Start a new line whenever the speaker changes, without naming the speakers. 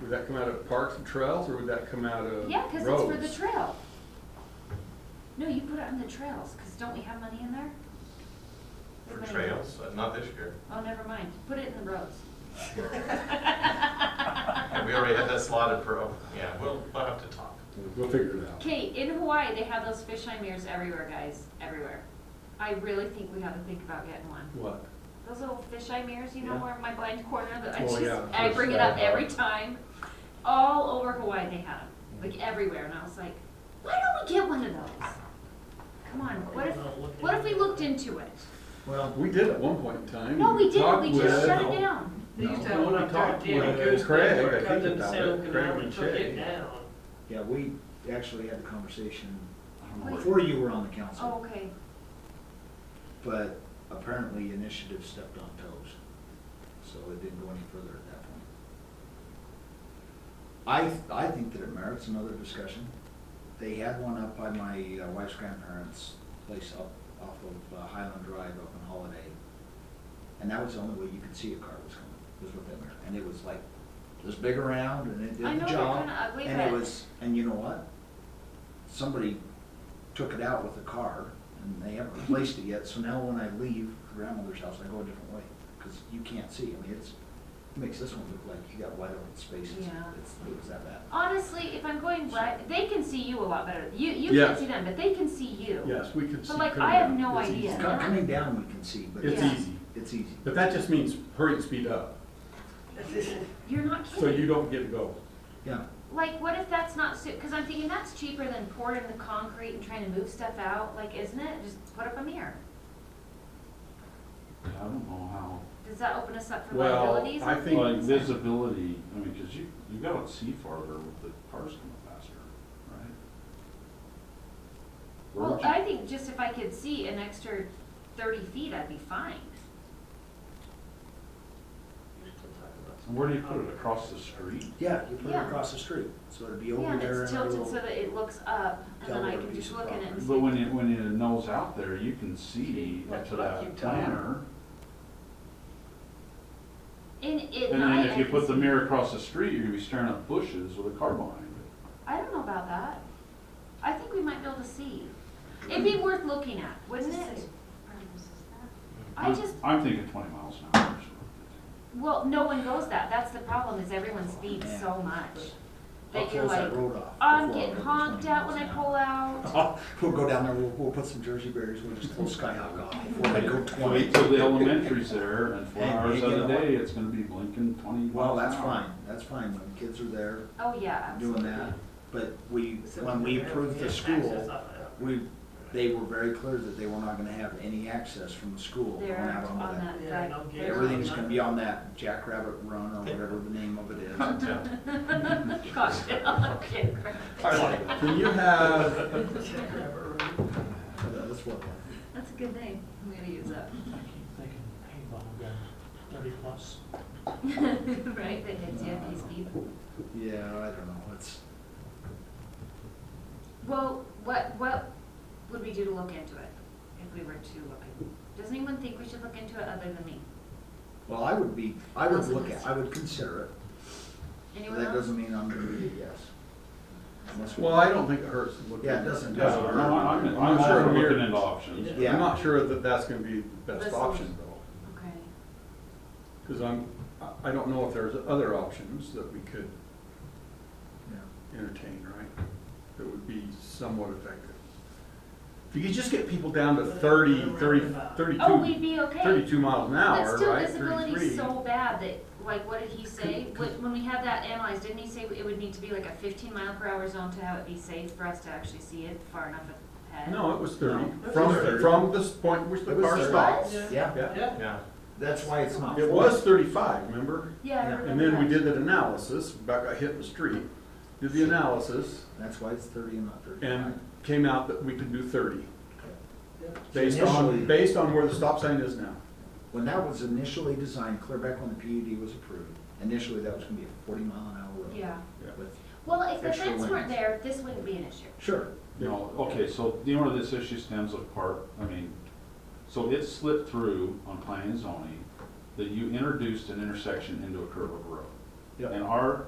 Would that come out of parks and trails, or would that come out of roads?
Yeah, because it's for the trail. No, you put it on the trails, because don't we have money in there?
For
Everybody-
trails, uh, not this year.
Oh, never mind, put it in the roads.
Yeah, We already had that slotted for, oh, yeah, we'll, we'll have to talk.
We'll figure it out.
Okay, in Hawaii, they have those fisheye mirrors everywhere, guys, everywhere. I really think we gotta think about getting one.
What?
Those little fisheye mirrors, you know,
Yeah.
where my blind corner, that I
Oh,
just,
yeah,
I bring it up
fish eye.
every time. All over Hawaii they had them, like everywhere, and I was like, why don't we get one of those? Come on, what if, what if we looked into it?
Well,
We did at one point in time.
No, we didn't,
talked
we just
with-
shut it down.
They used to
No,
have
when I
like
talked
Danny
with
Goose,
Craig,
they
I
cut
think
them
about
sound
it,
canal
Craig and
took it
Shay.
down.
yeah, we actually had the conversation
Wait.
before you were on the
Oh,
council,
okay,
but apparently initiative stepped on toes. So it didn't go any further at that point. I, I think that it merits another discussion. They had one up by my uh, wife's grandparents' place up off of uh, Highland Drive up on Holiday. And that was the only way you could see a car was coming, was with that mirror. And it was like, this big around and it did
I know,
the
they're
job.
kinda ugly,
And it
but-
was, and you know what? Somebody took it out with a car and they haven't replaced it yet. So now when I leave grandmother's house, I go a different way because you can't see. I mean, it's, it makes this one look like you got wide open spaces.
Yeah.
It's, it was that bad.
honestly, if I'm going west, they can see you a lot better, you, you
Yeah.
can't see them, but they can see you.
Yes, we could see.
But like,
coming
I have
down.
no
It's
idea.
easy.
Co- Coming down, we can see, but
It's
Yeah.
it's,
easy,
it's easy.
but that just means hurry and speed up,
You're not
so you
kidding,
don't get to go.
Yeah,
like, what if that's not su, cause I'm thinking that's cheaper than pouring the concrete and trying to move stuff out, like, isn't it, just put up a mirror?
I don't know how,
Does that open us up for
Well,
liabilities?
I think.
like visibility, I mean, because you, you gotta see farther with the cars coming faster, right? Where
Well,
would you-
I think just if I could see an extra thirty feet, I'd be fine.
Where do you put it, across the street?
yeah, you put it
Yeah.
across the street, so it'd be
Yeah,
over
and
there
it's
and a
tilted
little.
so that it looks up, and then I
Delaware
can
piece
just
of
look in it and
But
see.
when you, when you nose out there, you can see up to that planter.
In it,
And
I-
then if
I
you
can
put the
see-
mirror across the street, you're gonna be staring at bushes with a car behind it.
I don't know about that. I think we might be able to see. It'd be worth looking at, wouldn't it? I
I'm-
just,
I'm thinking twenty miles an hour. so-
well, no one goes that, that's the problem, is everyone speeds
Yeah.
so much.
I'll
That you're
close
like,
that road off.
I'm
before I
getting
go to
honked
20
at
miles
when I
an hour."
pull out.
Oh, We'll go down there, we'll, we'll put some Jersey barriers, we'll just throw Skyhawk off before I go twenty.
Wait till the elementary's there and four
Hey,
hours
you
out of the
know what?
day, it's gonna be blinking twenty miles an hour.
Well, that's fine, that's fine, when the kids are there
Oh, yeah,
doing
absolutely.
that, but we, when we approved the
Access
school,
off of that.
we, they were very clear that they were not gonna have any access from the school on
They're
out onto
on
that
that,
Yeah, no
that-
gate.
they're
Everything's gonna be on that Jackrabbit Run or whatever the name of it is.
Yeah.
Gosh, okay, great.
Can you have,
That's what,
That's a good name. I'm gonna use that.
thinking paintball gun, thirty plus.
right? That hits you if you speed.
yeah, I don't know, it's,
Well, what what would we do to look into it if we were to look? in- Does anyone think we should look into it other than me?
well, I would be, I would look at, I would consider it, but
Anyone
that
else?
doesn't mean I'm gonna be a yes. Unless we-
well, I don't think it hurts to look.
Yeah, it
at
doesn't-
Yeah,
doesn't
No, I'm, I'm
I'm
all
not sure
for
we're-
looking into options.
Yeah.
I'm not sure that that's gonna be the best
Listen.
option though,
Okay.
because I'm, I- I don't know if there's other options that we could
Yeah.
entertain, right? That would be somewhat effective. If you could just get people down to 30, 30, 32
Oh, we'd be okay.
32 miles an hour,
But still,
right?
visibility's
33.
so bad that, like, what did he say? When when we had that analyzed, didn't he say it would need to be like a fifteen mile per hour zone to have it be safe for us to actually see it far enough ahead?
No, it was
No,
30,
it was
from,
30.
from this point at which the
It was
car
30.
stopped.
Was?
Yeah,
Yeah,
Yeah.
Yeah,
that's why it's not.
it was 35, remember?
Yeah, I
Yeah.
remember
And then we
that.
did that analysis, about got hit in the street, did the analysis,
That's why it's thirty and not thirty-five.
and came out that we could do 30,
Yeah.
based on,
Initially-
based on where the stop sign is now.
When that was initially designed, clear back when the PUD was approved, initially that was gonna be a forty mile an hour road.
Yeah.
With-
Well, if the
Extra
fence weren't
lanes.
there, this wouldn't be an issue.
Sure,
No, okay, so the owner of this issue stems apart, I mean, so it slipped through on planning and zoning that you introduced an intersection into a curve of a road.
Yeah.
And our